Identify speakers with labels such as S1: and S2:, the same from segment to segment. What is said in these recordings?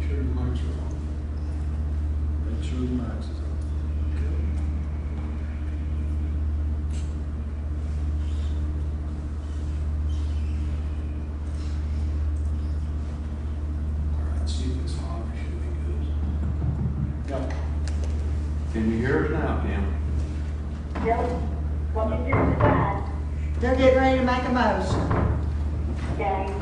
S1: sure the mics are on. Make sure the mics is on. All right, see if it's on, it should be good. Yeah.
S2: Can you hear us now, Kim?
S3: Yep, what we just decided,
S4: They're getting ready to make a motion.
S3: okay,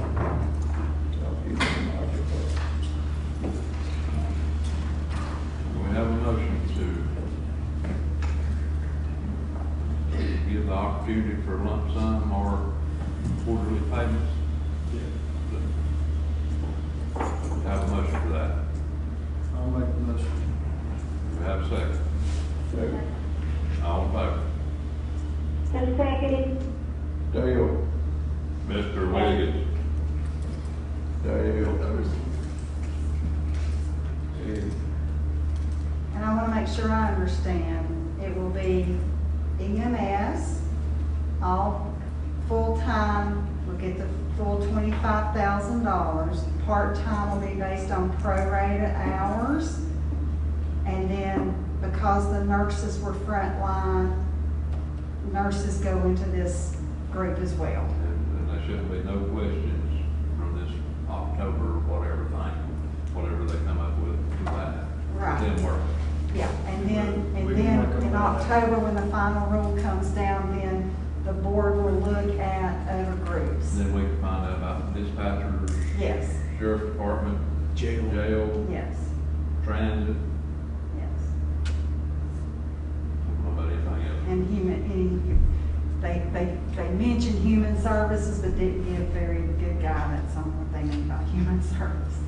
S2: We have a motion to give the opportunity for lump sum or quarterly payments. We Have a motion for that.
S1: I'll make the motion.
S2: We have a second. All in favor?
S3: who seconded?
S5: Dale,
S2: Mr. Wiggins.
S5: Dale. Hey,
S4: And I want to make sure I understand. It will be EMS, all full-time will get the full twenty-five thousand dollars. Part-time will be based on prorated hours. And then because the nurses were frontline, nurses go into this group as well.
S2: And there shouldn't be no questions from this October, whatever thing, whatever they come up with, to that.
S4: Right.
S2: Then work.
S4: Yeah, and then,
S1: We
S4: and
S1: can
S4: then
S1: work on
S4: in
S1: that.
S4: October, when the final rule comes down, then the board will look at other groups.
S2: Then we can find out about dispatchers,
S4: Yes,
S2: sheriff's department,
S1: Jail.
S2: jail,
S4: yes,
S2: transit,
S4: yes.
S2: what about anything else?
S4: And human, and they, they, they mentioned human services, but didn't give very good guidance on what they mean by human services.